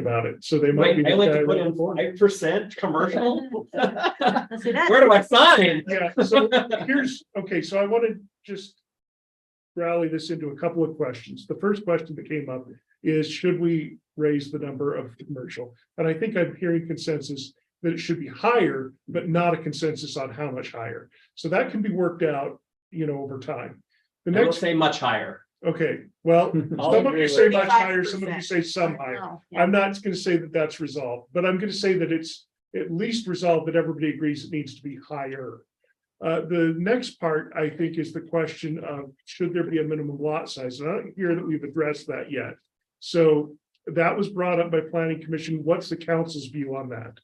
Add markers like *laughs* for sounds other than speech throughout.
about it, so they might be. Wait, the I like guy to put that- in five percent commercial? Let's do that. Where do I sign? *laughs* Yeah, so here's, okay, so I want to just rally this into a couple of questions. The first question that came up is, should we raise the number of commercial? And I think I'm hearing consensus that it should be higher, but not a consensus on how much higher. So that can be worked out, you know, over time. The I will next, say much higher. okay, well, *laughs* I'll some of agree you with say you. much higher, some of you say some higher. Oh, yeah. I'm not gonna say that that's resolved, but I'm gonna say that it's at least resolved that everybody agrees it needs to be higher. Uh, the next part, I think, is the question of should there be a minimum lot size? And I don't hear that we've addressed that yet. So that was brought up by planning commission. What's the council's view on that?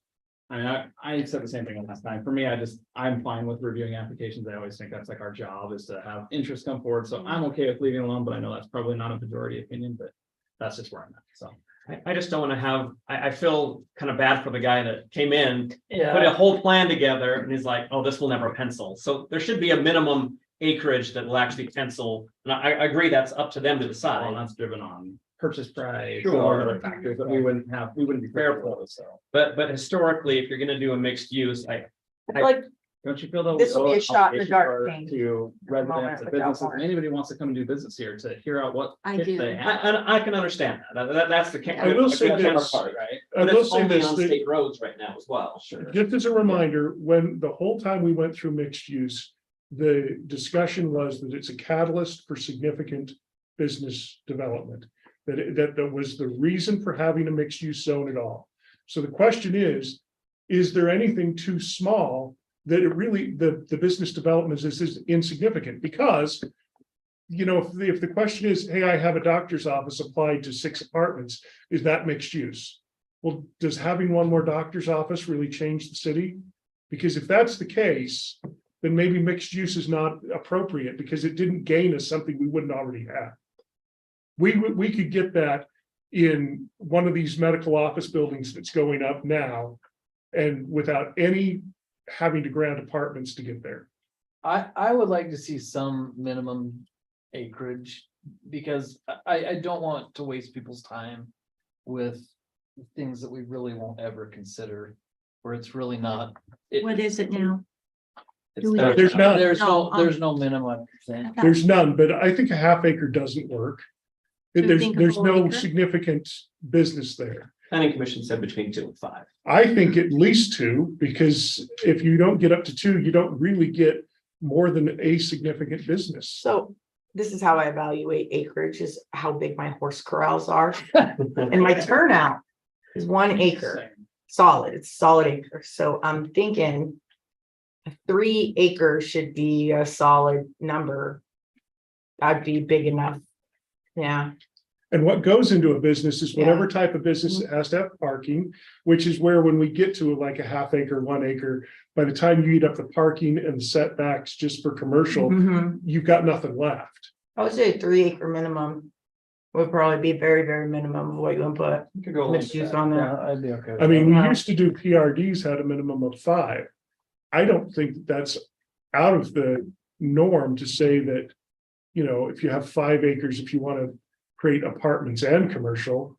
I mean, I, I said the same thing last time. For me, I just, I'm fine with reviewing applications. I always think that's like our job is to have interest come forward. So I'm okay with leaving it alone, but I know that's probably not a majority opinion, but that's just where I'm at, so. I, I just don't wanna have, I, I feel kind of bad for the guy that came in, put Yeah. a whole plan together and he's like, oh, this will never pencil. So there should be a minimum acreage that will actually pencil. And I, I agree, that's up to them to Well, decide, that's driven on purchase price Sure. or other factors that we wouldn't have, we wouldn't be fair for, so. but, but historically, if you're gonna do a mixed use, I, I feel like Don't you feel that? This will be a shot in the dark obligation thing To residents moment and without businesses, and warrant. anybody who wants to come and do business here to hear out what. I pitch do. they I, have. I, I can understand that. That- that- that's the. I will say that's our this. part, right? I But will it's say only this, on that- state roads right now as well. Sure. Just as a reminder, when the whole time we went through mixed use, the discussion was that it's a catalyst for significant business development. That it- that that was the reason for having a mixed use zone at all. So the question is, is there anything too small that it really, the the business development is is insignificant because you know, if the if the question is, hey, I have a doctor's office applied to six apartments, is that mixed use? Well, does having one more doctor's office really change the city? Because if that's the case, then maybe mixed use is not appropriate because it didn't gain us something we wouldn't already have. We would, we could get that in one of these medical office buildings that's going up now. And without any having to grant apartments to get there. I, I would like to see some minimum acreage, because I- I, I don't want to waste people's time with things that we really won't ever consider, where it's really not. it- What is it now? it's do we- There's none. There's no, No, um, there's no minimum. thing. There's none, but I think a half acre doesn't work. There's, think a there's whole no acre? significant business there. Planning commission said between two and five. I think at least two, because if you don't get up to two, you don't really get more than a significant business. So this is how I evaluate acreage is how big my horse corrals are and my turnout is one acre, solid, it's solid acre. So I'm thinking a three acre should be a solid number. That'd be big enough. Yeah, And what goes into a business is whatever type of business it has to have parking, which is where when we get to like a half acre, one acre, by the time you eat up the parking and setbacks just for commercial, Mhm. you've got nothing left. I would say a three acre minimum would probably be very, very minimum of what you input. You could go along with Mixed use that. on that. Yeah, I'd be okay. with I mean, we Yeah. used to do PRDs had a minimum of five. I don't think that's out of the norm to say that, you know, if you have five acres, if you want to create apartments and commercial.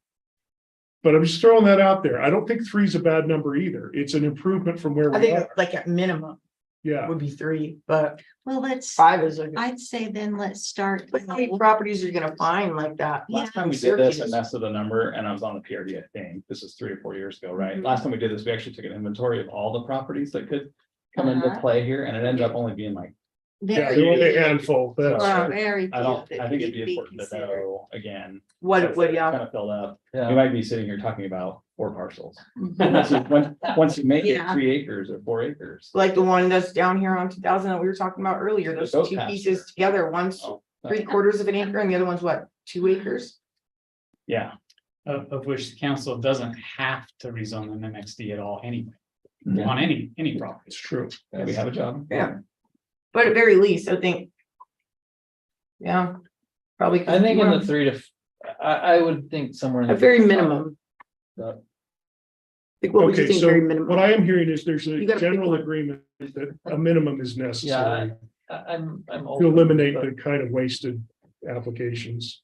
But I'm just throwing that out there. I don't think three is a bad number either. It's an improvement from where I we think are. like at minimum Yeah, would be three, but Well, let's, five is a. good- I'd say then let's start. But how many properties are you gonna find like that? Yeah. Last time we did this, I Syracuse. messed with a number and I was on the PRD, I think. This is three or four years ago, right? Mhm. Last time we did this, we actually took an inventory of all the properties that could come into Uh-huh. play here and it ended up only being like, yeah, Very there were a few, handful. That's, Wow. very I few don't, I that think it'd could be be important to considered. know again. What it would, yeah. Kind of filled up. Yeah. You might be sitting here talking about four parcels. Mm-hmm. Once you, once- once you make it Yeah. three acres or four acres. Like the one that's down here on two thousand that we were talking about earlier, The those goat two pasture. pieces together, one's Oh, uh, three quarters of an acre and the other one's what, two acres? Yeah. of, of which the council doesn't have to rezone them MXD at all anyway, Yeah, on any, any property. it's true. We have a job. Yeah. But at very least, I think. Yeah, probably. I think in the three to, f- I, I would think somewhere. in A the- very minimum. Yeah. Like what would you Okay, think so very what I minimum? am hearing is there's a You gotta pick general one. agreement that a minimum is necessary I, I'm, I'm. to open, eliminate but- the kind of wasted applications.